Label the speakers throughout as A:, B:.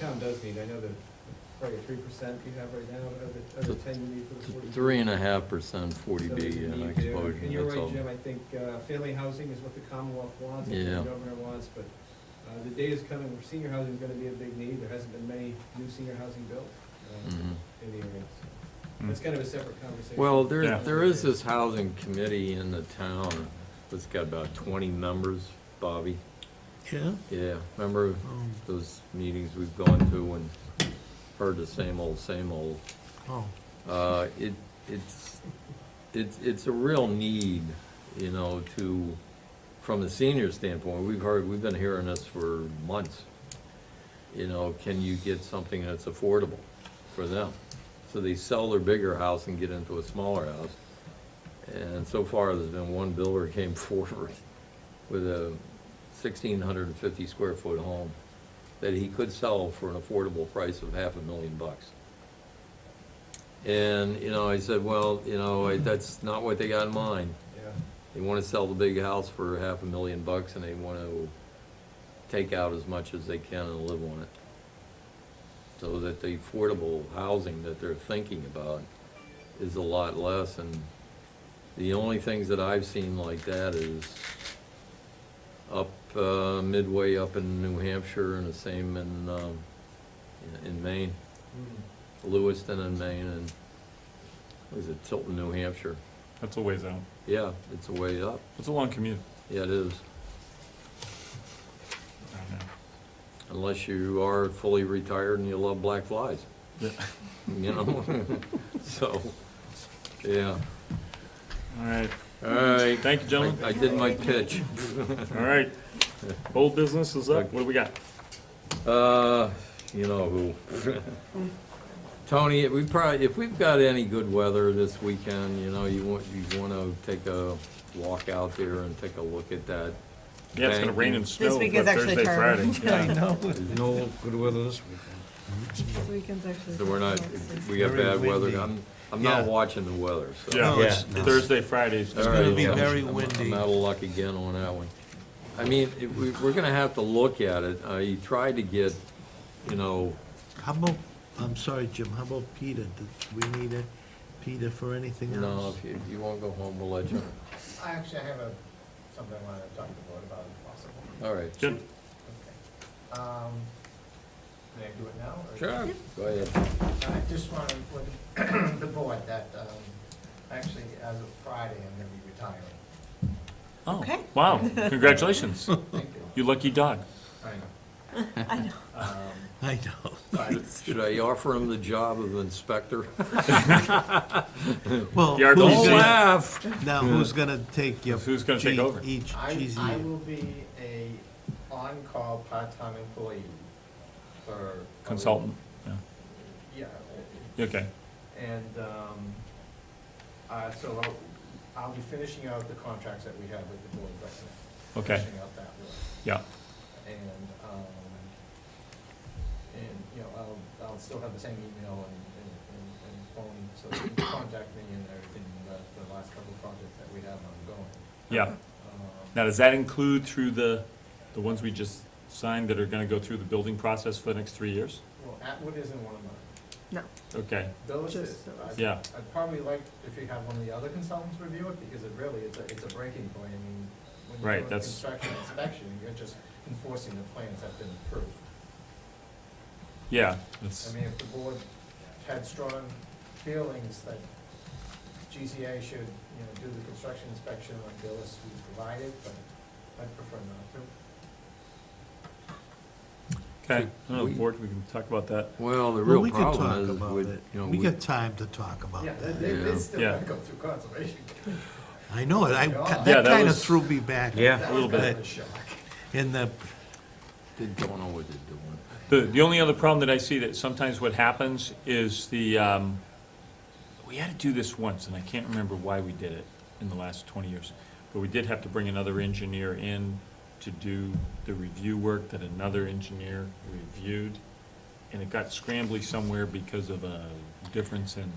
A: town does need, I know the, probably three percent you have right now, but of the, of the ten you need for the forty.
B: It's Three and a half percent forty
A: So
B: B
A: you
B: uh,
A: need there.
B: exposure,
A: And you're
B: that's all.
A: right, Jim, I think uh, family housing is what the Commonwealth wants, and
B: Yeah.
A: the governor wants, but uh, the day is coming where senior housing is gonna be a big need. There hasn't been many new senior housing built uh,
B: Mhm.
A: in the area. so That's kind of a separate conversation.
B: Well, there,
C: Yeah.
B: there is this housing committee in the town that's got about twenty members, Bobby.
D: Yeah?
B: Yeah, remember
D: Oh,
B: those meetings we've gone to and heard the same old, same old?
D: oh,
B: Uh, it, it's, it's, it's a real need, you know, to, from a senior standpoint, we've heard, we've been hearing this for months. You know, can you get something that's affordable for them? So they sell their bigger house and get into a smaller house. And so far, there's been one builder came forward with a sixteen hundred and fifty square foot home that he could sell for an affordable price of half a million bucks. And, you know, I said, well, you know, I- that's not what they got in mind.
A: Yeah,
B: They want to sell the big house for half a million bucks and they want to take out as much as they can and live on it. So that the affordable housing that they're thinking about is a lot less and the only things that I've seen like that is up uh, midway up in New Hampshire and the same in, um, in- in Maine.
A: Hmm.
B: Lewiston in Maine and, what is it, Tilton, New Hampshire.
C: That's a ways out.
B: Yeah, it's a way up.
C: It's a long commute.
B: Yeah, it is.
C: I don't know.
B: Unless you are fully retired and you love black flies,
C: Yeah.
B: you know? So, yeah.
C: All right.
B: All right.
C: Thank you,
B: I
C: gentlemen.
B: I did my pitch.
C: All right. Old business is up. What do we got?
B: Uh, you know who. Tony, we probably, if we've got any good weather this weekend, you know, you want, you want to take a walk out there and take a look at that.
C: Yeah, it's gonna
B: Thank
C: rain
B: you.
C: and snow.
E: week
C: for
E: is actually
C: Thursday,
E: terrible.
C: Friday. Yeah.
D: no good weather this weekend.
E: This weekend's actually.
B: So we're not, we got
D: Very
B: bad weather.
D: windy.
B: I'm, I'm not
D: Yeah.
B: watching the weather, so.
C: Yeah,
D: No, it's-
C: it's Thursday, Fridays.
B: All
C: All
D: gonna
B: right,
D: be
B: yeah.
D: very
B: I'm-
D: windy.
B: I'm out of luck again on that one. I mean, it- we, we're gonna have to look at it. I tried to get, you know,
D: How about, I'm sorry, Jim, how about Peter? Do we need a Peter for anything
B: no,
D: else?
B: if you, if you won't go home, we'll let you.
F: I actually have a, something I wanted to talk to the board about if possible.
B: All right.
C: Jim,
F: Okay. Um, May I do it now? or-
B: Sure, go ahead.
F: I just want to inform the board that, um, actually, as of Friday, I'm going to be retiring.
C: oh,
E: Okay.
C: wow, congratulations.
F: Thank you.
C: You lucky dog.
F: I know. Um,
D: I know.
F: But
B: Should I offer him the job of inspector?
D: Well,
B: Don't
C: Yard dog. Don't
D: who's gonna-
B: laugh.
D: now who's gonna take your?
C: Who's gonna take
D: che-
C: over?
D: Each
F: I,
D: cheesy.
F: I will be a on-call part-time employee for. a week.
C: Consultant, yeah,
F: Yeah,
C: okay.
F: And um, uh, so I'll- I'll be finishing out the contracts that we have with the board right now.
C: Okay.
F: Finishing out that work.
C: Yeah,
F: And, um, and, you know, I'll, I'll still have the same email and, and- and and phone, so you can contact me and everything, about the last couple of projects that we have ongoing.
C: yeah.
F: Um,
C: Now, does that include through the, the ones we just signed that are gonna go through the building process for the next three years?
F: Well, Atwood isn't one of mine.
E: No.
C: Okay,
F: Those
E: Just
F: is,
E: those.
F: I'd-
C: Yeah.
F: I'd probably like if you have one of the other consultants review it, because it really, it's a, it's a breaking point, I mean, when
C: Right,
F: you're doing
C: that's-
F: construction inspection, you're just enforcing the plans that have been approved.
C: yeah,
F: I
C: that's,
F: mean, if the board had strong feelings that GCA should, you know, do the construction inspection on the list we provided, but I'd prefer not to.
C: okay. I don't know, board, we can talk about that.
B: Well, the
D: Well,
B: real
D: we can talk
B: problem is
D: about
B: with,
D: it.
B: you know,
D: We
B: we,
D: got time to talk about
F: Yeah,
D: that.
F: they, they-
B: Yeah.
F: they still
C: Yeah.
F: gotta go through conservation.
D: I know it. I,
F: Yeah,
D: that
C: that
D: kinda
C: was-
D: threw me back.
F: That
C: A little
F: was kind of
D: bit.
F: a shock.
D: In the,
B: they don't know what they're doing.
C: The, the only other problem that I see that sometimes what happens is the, um, we had to do this once, and I can't remember why we did it in the last twenty years. But we did have to bring another engineer in to do the review work that another engineer reviewed. And it got scrambly somewhere because of a difference in,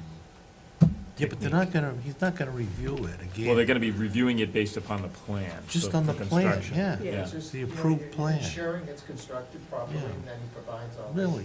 D: yeah, but they're not gonna, he's not gonna review it again.
C: well, they're gonna be reviewing it based upon the plan.
D: Just
C: so
D: on the
C: for
D: plan,
C: construction.
D: yeah.
E: Yeah.
C: Yeah.
F: It's just,
D: The
F: you know,
D: approved
F: you're- you're
D: plan.
F: Ensuring it's constructed properly
D: Yeah.
F: and then he provides all. the-
D: Really?